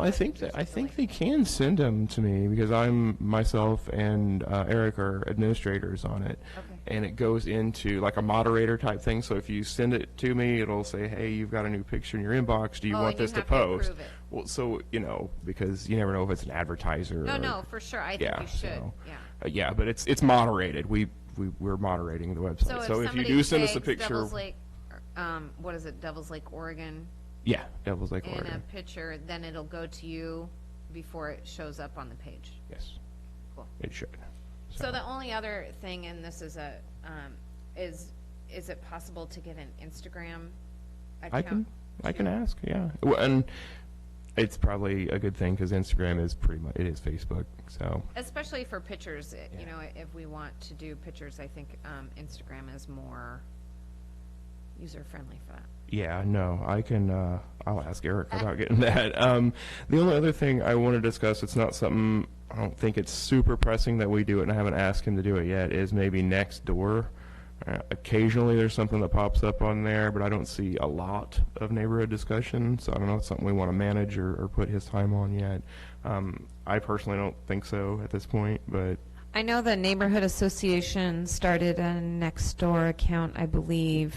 I think that I think they can send them to me because I'm myself and uh, Eric are administrators on it, Okay. and it goes into like a moderator type thing. So if you send it to me, it'll say, "Hey, you've got a new picture in your inbox. Do you Oh, want and you this have to to approve post?" it. Well, so you know because you never know if it's an advertiser. No, or, no, for sure, I think Yeah, you should, so- yeah. uh, yeah, but it's it's moderated. We we we're moderating the website. So so if if you somebody do send us a tags picture, Devils Lake, um, what is it, Devils Lake, Oregon, yeah, Devil's Lake in a Oregon. picture, then it'll go to you before it shows up on the page. Yes, Cool. it should. So the only other thing, and this is a, um, is, is it possible to get an Instagram account? I can, I can ask, yeah. Well, and it's probably a good thing because Instagram is pretty much, it is Facebook, so. Especially for pictures, i- you know, if we want to do pictures, I think, um, Instagram is more user-friendly for that. Yeah, no, I can, uh, I'll ask Eric about getting that. Um, the only other thing I want to discuss, it's not something, I don't think it's super pressing that we do it, and I haven't asked him to do it yet, is maybe next door. Uh, occasionally, there's something that pops up on there, but I don't see a lot of neighborhood discussion, so I don't know if it's something we want to manage or, or put his time on yet. Um, I personally don't think so at this point, but I know the neighborhood association started a Nextdoor account, I believe,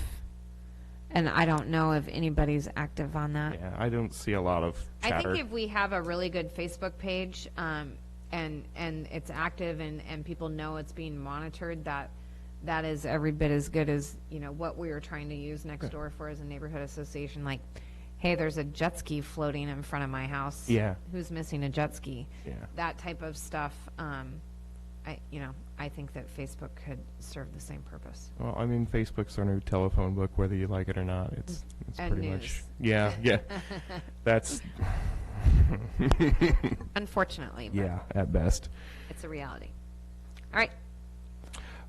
and I don't know if anybody's active on that. Yeah, I don't see a lot of Uh. I chatter. think if we have a really good Facebook page, um, and, and it's active and, and people know it's being monitored, that, that is every bit as good as, you know, what we were trying to use next door for as a neighborhood association, like, hey, there's a jet ski floating in front of my house. Yeah. Who's missing a jet ski? Yeah. That type of stuff, um, I, you know, I think that Facebook could serve the same purpose. well, I mean, Facebook's our new telephone book, whether you like it or not. It's it's Mm. And pretty news. much yeah, yeah. That's Unfortunately, but yeah, at best. it's a reality. All right,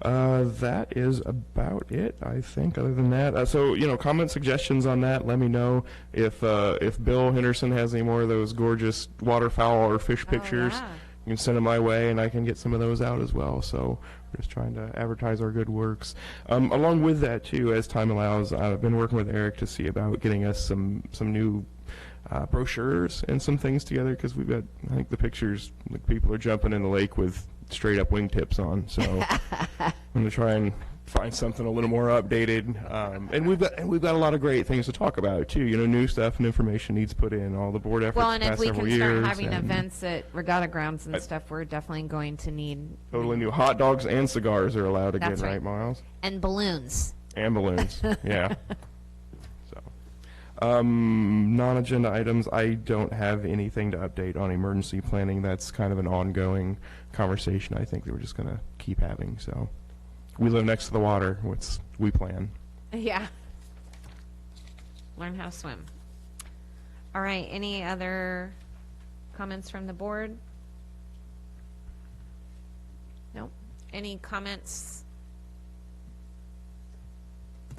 Uh, that is about it, I think. Other than that, uh, so you know, comment suggestions on that. Let me know if uh, if Bill Henderson has any more of those gorgeous waterfowl or fish pictures. yeah. You can send them my way, and I can get some of those out as well. So we're just trying to advertise our good works. Um, along with that, too, as time allows, I've been working with Eric to see about getting us some some new uh, brochures and some things together because we've got I think the pictures like people are jumping in the lake with straight up wingtips on. So. I'm gonna try and find something a little more updated. Um, and we've got and we've got a lot of great things to talk about too. You know, new stuff and information needs put in. All the board efforts Well, the and if past we several can start years having and events at regatta grounds and stuff, we're definitely going to need, Totally new hot dogs and cigars are allowed again, That's right. Miles? and balloons. And balloons. yeah. So, um, non-agenda items. I don't have anything to update on emergency planning. That's kind of an ongoing conversation. I think that we're just gonna keep having. So, we live next to the water. What's we plan? Yeah. Learn how to swim. All right, any other comments from the board? Nope. Any comments?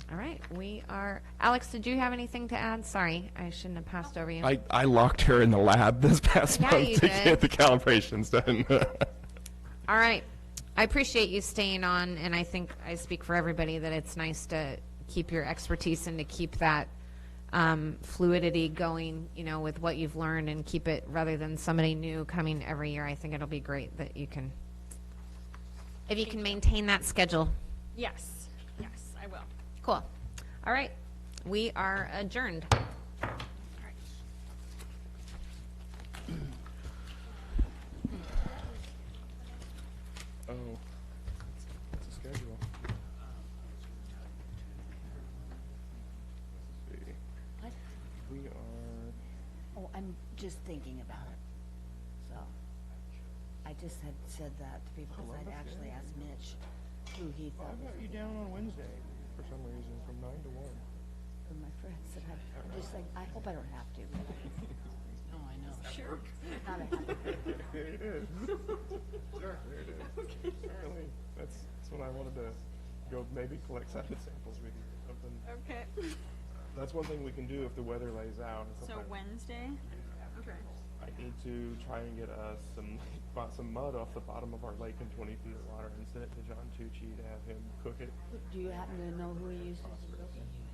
All right, we are, Alex, did you have anything to add? Sorry, I shouldn't have passed over you. I, I locked her in the lab this past Yeah, month you to did. get the calibrations done. All right. I appreciate you staying on, and I think I speak for everybody that it's nice to keep your expertise and to keep that um, fluidity going, you know, with what you've learned and keep it rather than somebody new coming every year. I think it'll be great that you can, if you can maintain that schedule. Yes, yes, I will. Cool. All right. We are adjourned. Oh, I'm just thinking about it, so. I just had said that to people, because I'd actually asked Mitch who he thought was, you down on Wednesday for some reason from 9 to 1. and my friend said, I'm just like, I hope I don't have to. No, I know. Sure. Not a happy Apparently, that's, that's when I wanted to go maybe collect sound samples with you or something. Okay. That's one thing we can do if the weather lays out. and So sometimes Wednesday? Okay. I need to try and get us some, bought some mud off the bottom of our lake in 20 feet of water and send it to John Tucci to have him cook it. Do you happen to know who he uses?